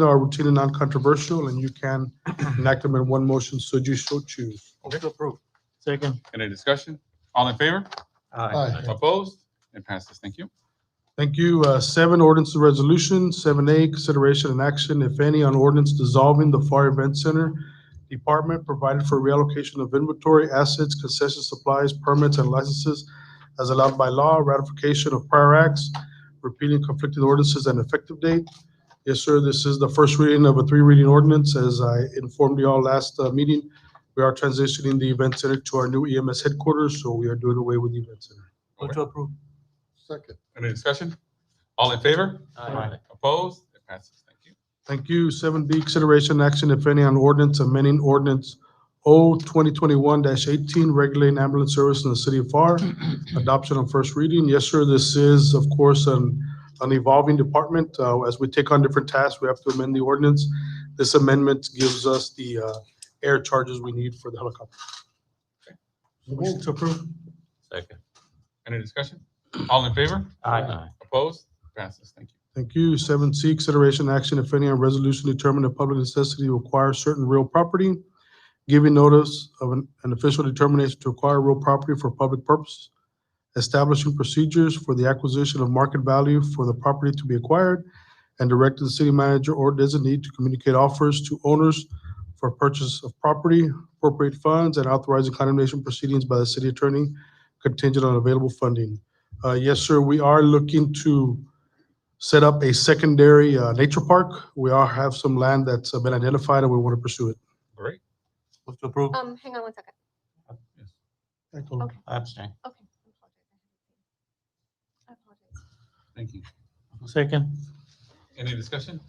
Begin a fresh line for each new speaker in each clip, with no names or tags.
that are routine and non-controversial, and you can enact them in one motion should you so choose.
Motion to approve.
Second.
Any discussion? All in favor?
Aye.
Opposed? It passes. Thank you.
Thank you. Uh, Seven, ordinance and resolution. Seven A, consideration and action, if any, on ordinance dissolving the FAR Event Center Department, provided for reallocation of inventory, assets, concession supplies, permits, and licenses as allowed by law, ratification of prior acts, repealing conflicting ordinances and effective date. Yes, sir, this is the first reading of a three-reading ordinance. As I informed you all last uh, meeting, we are transitioning the event center to our new EMS headquarters, so we are doing away with the event center.
Motion to approve.
Second.
Any discussion? All in favor?
Aye.
Opposed? It passes. Thank you.
Thank you. Seven B, consideration action, if any, on ordinance amending ordinance O 2021-18, regulating ambulance service in the city of FAR, adoption on first reading. Yes, sir, this is, of course, an, an evolving department. Uh, As we take on different tasks, we have to amend the ordinance. This amendment gives us the uh, air charges we need for the helicopter. Motion to approve?
Second.
Any discussion? All in favor?
Aye.
Opposed? It passes. Thank you.
Thank you. Seven C, consideration action, if any, on resolution determining a public necessity to acquire certain real property, giving notice of an an official determination to acquire real property for public purpose, establishing procedures for the acquisition of market value for the property to be acquired, and directing the city manager or designee to communicate offers to owners for purchase of property, appropriate funds, and authorizing condemnation proceedings by the city attorney contingent on available funding. Uh, Yes, sir, we are looking to set up a secondary uh, nature park. We are, have some land that's uh, been identified and we want to pursue it.
Great.
Motion to approve.
Um, hang on one second. Okay.
I abstain.
Okay. I apologize.
Thank you.
Second.
Any discussion?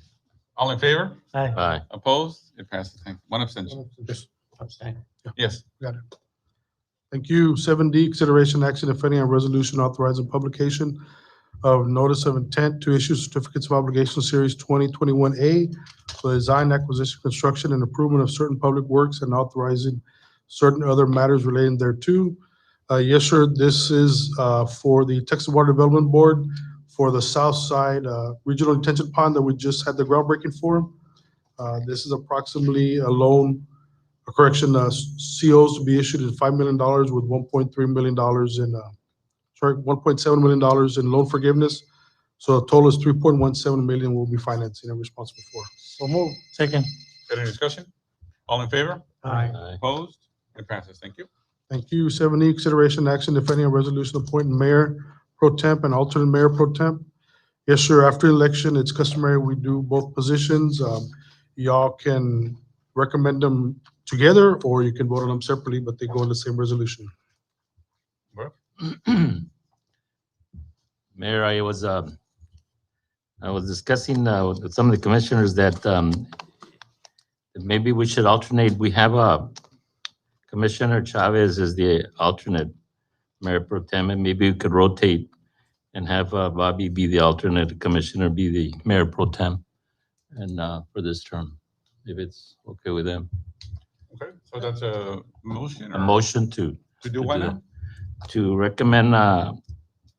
All in favor?
Aye.
Aye.
Opposed? It passes. Thank you. One abstention.
Abstain.
Yes.
Thank you. Seven D, consideration action, if any, on resolution authorizing publication of notice of intent to issue certificates of obligation series twenty twenty-one A for the design, acquisition, construction, and improvement of certain public works and authorizing certain other matters relating thereto. Uh, yes, sir, this is, uh, for the Texas Water Development Board for the South Side, uh, Regional Detention Pond that we just had the groundbreaking for. Uh, this is approximately a loan a correction, uh, s- COs to be issued in five million dollars with one point three million dollars in, uh, sorry, one point seven million dollars in loan forgiveness. So the total is three point one seven million we'll be financing and responsible for. So move.
Second.
Any discussion? All in favor?
Aye.
Uh,
Opposed? It passes. Thank you.
Thank you. Seven E, consideration action, if any, on resolution appointing mayor pro temp and alternate mayor pro temp. Yes, sir, after election, it's customary, we do both positions. Um, y'all can recommend them together or you can vote on them separately, but they go in the same resolution.
Mayor, I was, um, I was discussing uh, with some of the commissioners that um, maybe we should alternate. We have a Commissioner Chavez is the alternate Mayor Pro Tem, and maybe we could rotate and have uh, Bobby be the alternate Commissioner, be the Mayor Pro Tem, and uh, for this term, if it's okay with them.
Okay. So that's a motion
A
or
motion to
to do what now?
to recommend uh,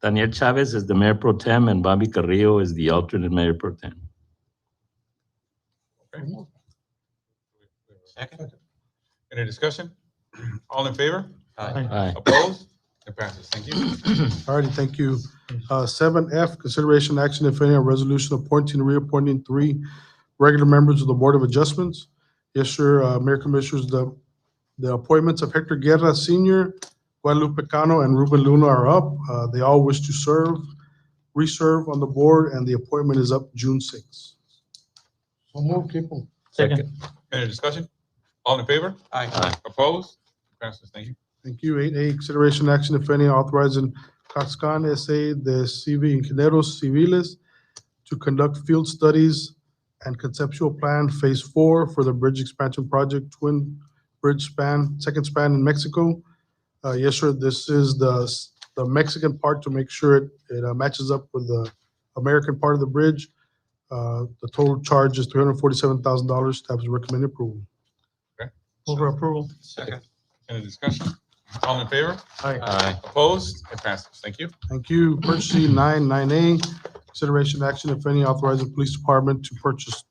Daniel Chavez as the mayor pro tem and Bobby Carrillo as the alternate mayor pro tem.
Second.
Any discussion? All in favor?
Aye.
Aye.
Opposed? It passes. Thank you.
All righty, thank you. Uh, Seven F, consideration action, if any, on resolution appointing, and reappointing three regular members of the Board of Adjustments. Yes, sir, uh, Mayor Commissioners, the, the appointments of Hector Guerra Senior, Guadalupe Cano, and Ruben Luna are up. Uh, They all wish to serve, reserve on the board, and the appointment is up June sixth.
Second.
Any discussion? All in favor?
Aye.
Aye.
Opposed? It passes. Thank you.
Thank you. Eight A, consideration action, if any, authorizing Coxcon S.A., the CV Ingenieros Civiles to conduct field studies and conceptual plan Phase Four for the bridge expansion project, Twin Bridge Span, Second Span in Mexico. Uh, yes, sir, this is the, s- the Mexican part to make sure it, it uh, matches up with the American part of the bridge. Uh, the total charge is three hundred forty-seven thousand dollars. Staff is recommending approval.
Move for approval.
Second.
Any discussion? All in favor?
Aye.
Opposed? It passes. Thank you.
Thank you. Purchasing nine nine A, consideration action, if any, authorizing police department to purchase